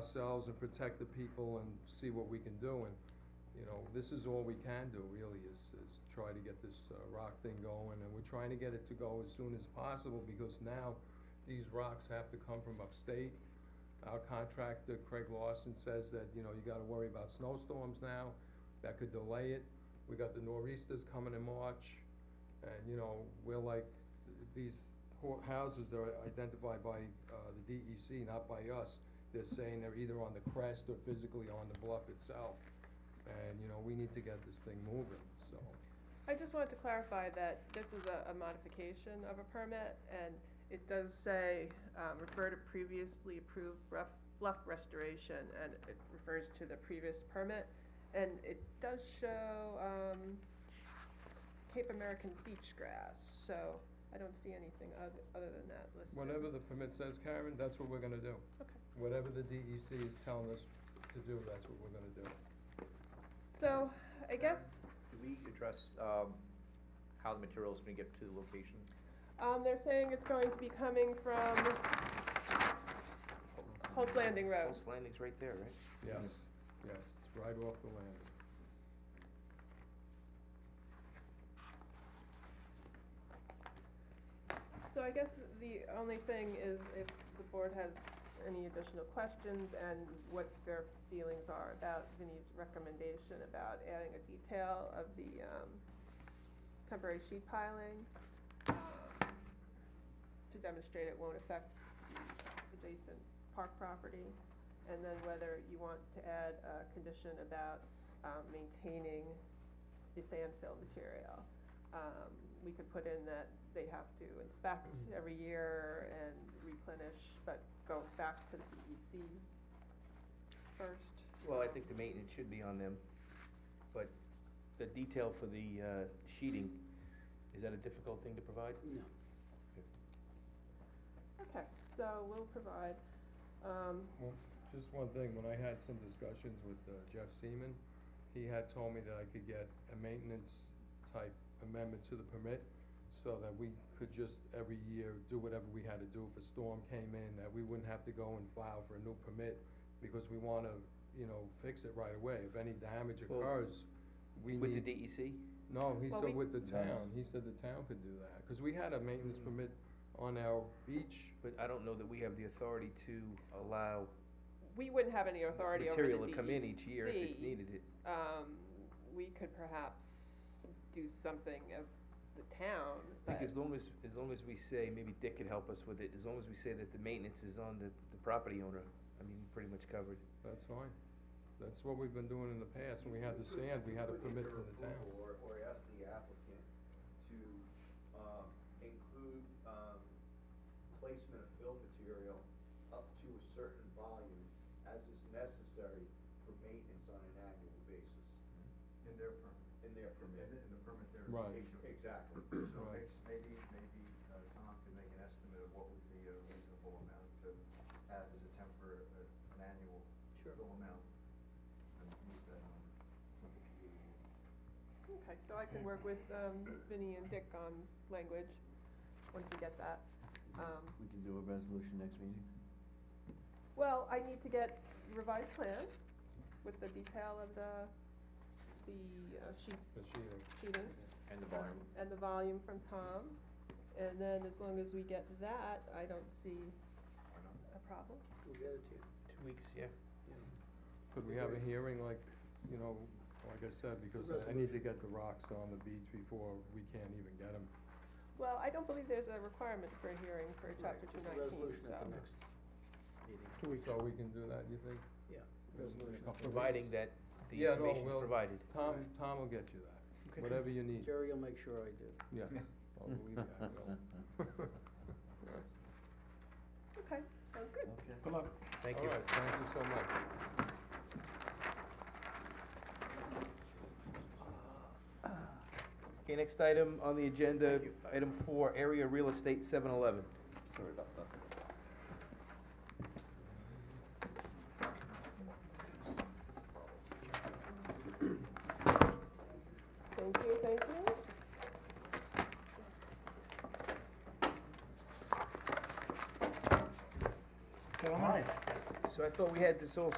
ourselves and protect the people and see what we can do, and, you know, this is all we can do really, is, is try to get this, uh, rock thing going, and we're trying to get it to go as soon as possible, because now these rocks have to come from upstate. Our contractor, Craig Lawson, says that, you know, you gotta worry about snowstorms now, that could delay it. We got the nor'easters coming in March, and, you know, we're like, these ho- houses that are identified by, uh, the DEC, not by us. They're saying they're either on the crest or physically on the bluff itself, and, you know, we need to get this thing moving, so. I just wanted to clarify that this is a, a modification of a permit, and it does say, um, refer to previously approved rough, bluff restoration, and it refers to the previous permit, and it does show, um, Cape American beach grass, so I don't see anything other, other than that listed. Whatever the permit says, Karen, that's what we're gonna do. Okay. Whatever the DEC is telling us to do, that's what we're gonna do. So, I guess, Did we address, um, how the material's gonna get to the location? Um, they're saying it's going to be coming from Holt's Landing Road. Post Landing's right there, right? Yes, yes, it's right off the land. So I guess the only thing is if the board has any additional questions and what their feelings are about Vinnie's recommendation about adding a detail of the, um, temporary sheet piling, um, to demonstrate it won't affect the adjacent park property, and then whether you want to add a condition about, um, maintaining the sand fill material. Um, we could put in that they have to inspect Mm-hmm. every year and replenish, but go back to the DEC first. Well, I think the maintenance should be on them, but the detail for the, uh, sheeting, is that a difficult thing to provide? No. Okay, so we'll provide, um, Well, just one thing, when I had some discussions with uh, Jeff Seaman, he had told me that I could get a maintenance type amendment to the permit, so that we could just every year do whatever we had to do if a storm came in, that we wouldn't have to go and file for a new permit, because we wanna, you know, fix it right away, if any damage Well, occurs, we need. With the E DEC? No, he Well, said we- with the town, he said the town could do that, cause we had a maintenance permit on our beach, Mm. But I don't know that we have the authority to allow we wouldn't have any authority over the E DEC. material to come in each year if it's needed. It- Um, we could perhaps do something as the town, I think but- as long as, as long as we say, maybe Dick could help us with it, as long as we say that the maintenance is on the, the property owner, I mean, we're pretty much covered. that's fine. That's what we've been doing in the past, when we had the sand, we had a permit from the town. Or, or ask the applicant to, um, include, um, placement of fill material up to a certain volume as is necessary for maintenance on an annual basis In their permit. in their permit. In the permit there. Right. Ex- Exactly. So Right. ex- maybe, maybe uh, Tom can make an estimate of what would be a reasonable amount to add as a temporary, uh, an annual. Sure. Amount. And move that on. Okay, so I can work with, um, Vinnie and Dick on language, once we get that, um. We can do a resolution next meeting? Well, I need to get revised plans with the detail of the, the uh, sheet, The sheeting. sheeting. And the um, And the volume from Tom, and then as long as we get that, I don't see a problem. We'll get it to you. Two weeks, yeah. Could we have a hearing like, you know, like I said, because I- I need to get the rocks on the beach before we can't even get them. Well, I don't believe there's a requirement for a hearing for chapter two nineteen, so. So we can do that, you think? Yeah, In a resolution. couple of Providing weeks? that the Yeah, no, information's we'll- provided. Tom, Tom will get you that, whatever you need, Jerry will make sure I do. yeah. I'll believe you, I will. Okay, sounds good. Okay. Come on. Thank you. All right, thank you so much. Okay, next item on the agenda, item four, area real estate seven eleven. Sorry about that. Thank you, thank you. So I thought we had this all